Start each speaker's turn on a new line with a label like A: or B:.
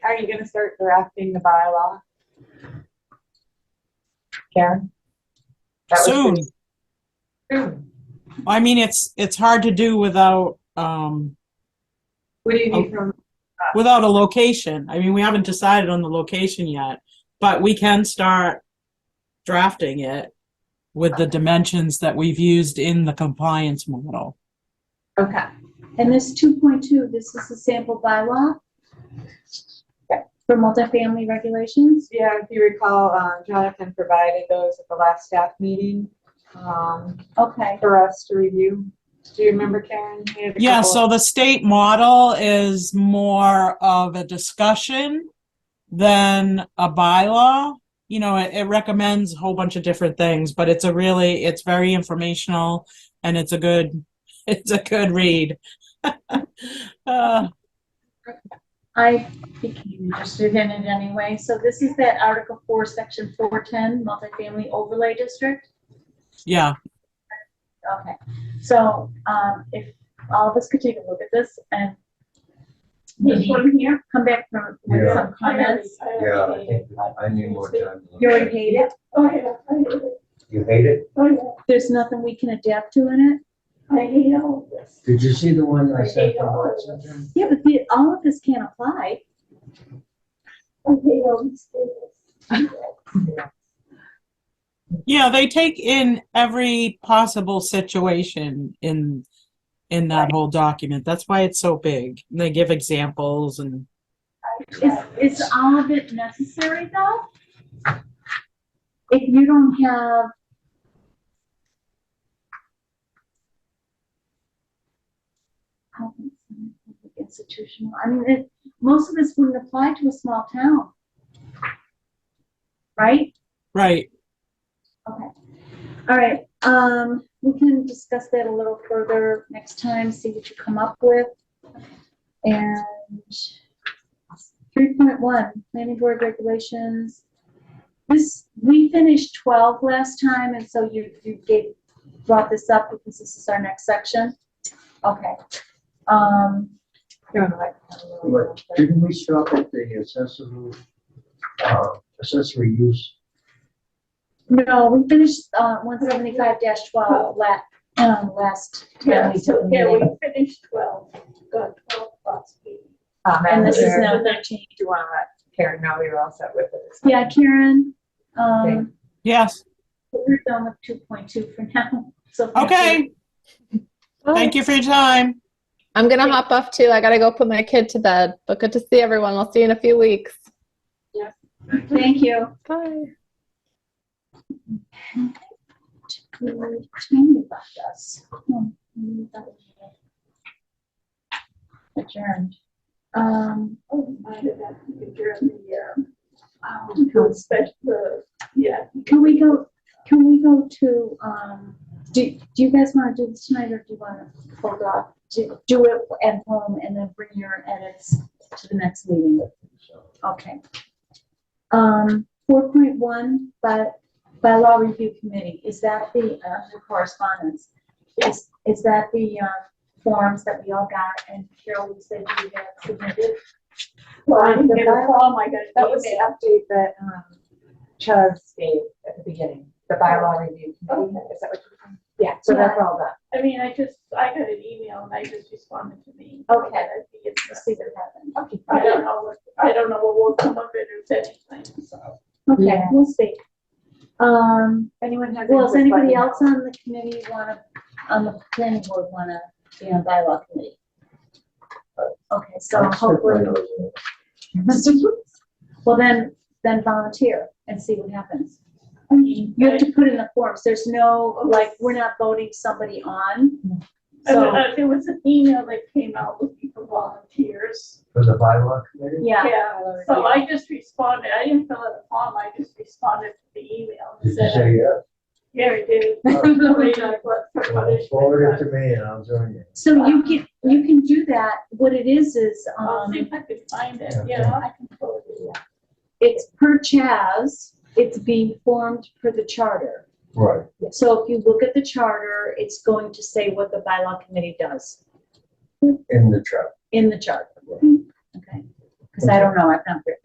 A: Are you gonna start drafting the bylaw? Karen? That was
B: soon.
A: pretty- Soon.
B: I mean, it's, it's hard to do without, um,
A: What do you need from,
B: without a location. I mean, we haven't decided on the location yet, but we can start drafting it with the dimensions that we've used in the compliance model.
C: Oh.
A: okay,
C: And this 2.2, this is a sample bylaw
A: Yeah.
C: for multifamily regulations.
A: yeah, if you recall, uh, Jonathan provided those at the last staff meeting, um,
C: Okay,
A: for us to review. Do you remember, Karen? He had a
B: Yeah,
A: couple-
B: so the state model is more of a discussion than a bylaw. You know, it, it recommends a whole bunch of different things, but it's a really, it's very informational and it's a good, it's a good read. Uh,
C: I became interested in it anyway. So this is that Article 4, Section 410, multifamily overlay district.
B: yeah,
C: Okay, so um, if all of us could take a look at this and
D: This one here?
C: come back from- with
D: Yeah.
C: some comments.
D: Yeah,
E: I think I need more time.
C: You already hate it.
D: Oh, yeah, I hate it.
E: You hate it?
D: Oh,
C: There's nothing we can adapt to in it.
D: yeah, I hate all of this.
E: Did you see the one I
D: I
E: sent
D: hate
E: from
D: all of
E: Watson?
D: this.
C: Yeah, but the- all of this can't apply.
D: I hate all these things.
B: yeah, they take in every possible situation in, in that whole document. That's why it's so big. They give examples and
C: Is, is all of it necessary though? If you don't have. I don't think it's Institutional, I mean, it, most of this wouldn't apply to a small town. Right?
B: Right.
C: Okay. All right, um, we can discuss that a little further next time, see what you come up with. And three point one, planning board regulations. This, we finished twelve last time, and so you, you gave, brought this up because this is our next section. Okay. Um,
A: You're on the right one, really well.
E: But didn't we stop at the accessory, uh, accessory use?
C: no, we finished, uh, one seventy-five twelve la, um, last.
D: Yeah, so, yeah, we
C: meeting.
D: finished twelve, got twelve plus B.
A: Um,
C: And this is
A: there-
C: now thirteen.
A: Do you wanna let Karen know you're all set with this?
C: Yeah, Karen,
A: Okay.
C: um,
B: Yes.
C: we're done with two point two for now, so.
B: Okay. Thank you for your time.
F: I'm gonna hop off too. I gotta go put my kid to bed. But good to see everyone. We'll see you in a few weeks.
C: Thank you.
F: Bye.
C: We were tiny about us. Hmm, we thought we had Adjourned. Um,
D: Oh, I did that during the, um, um, special, the- yeah.
C: can we go, can we go to, um, do, do you guys wanna do this tonight or do you wanna hold off? Do, do it at home and then bring your edits to the next meeting? Okay. Um, four point one, by, bylaw review committee, is that the, uh, the correspondence? Is, is that the, uh, forms that we all got and Carol, you said you had submitted?
D: Well, I didn't get a call, Oh my God,
A: That was the update that, um, Chaz gave at the beginning, the bylaw review committee, is that what you're? Yeah, so that's all done.
D: I mean, I just, I got an email and I just responded to me.
C: Okay.
D: I think it's-
C: Let's see what happened.
A: Okay.
D: I don't know, what- I don't know what will come of it or if anything, so.
C: Okay,
A: Yeah.
C: we'll see. Um,
A: Anyone have?
C: well, does
A: input, let me
C: anybody
A: know.
C: else on the committee wanna, on the planning board wanna be on bylaw committee? Okay, so Oh, hopefully, well then, then volunteer and see what happens.
D: I mean,
C: You have to put in the forms, there's no, like, we're not voting somebody on.
D: I-
C: So,
D: I- There was an email that came out looking for volunteers.
E: For the bylaw committee?
C: yeah,
D: So I just responded, I didn't fill out a form, I just responded to the email
E: Did
D: and
E: you
D: said,
E: say yes?
D: yeah, I did.
E: Well, Forward it to me and I'll join you.
C: so you can, you can do that, what it is, is,
D: I'll see
C: um,
D: if I can find it, you know, I can pull it. yeah.
C: it's per Chaz, it's being formed per the charter.
E: Right.
C: So if you look at the charter, it's going to say what the bylaw committee does
E: In the truck.
C: in the charter.
E: Right.
C: Okay, because I don't know, I've not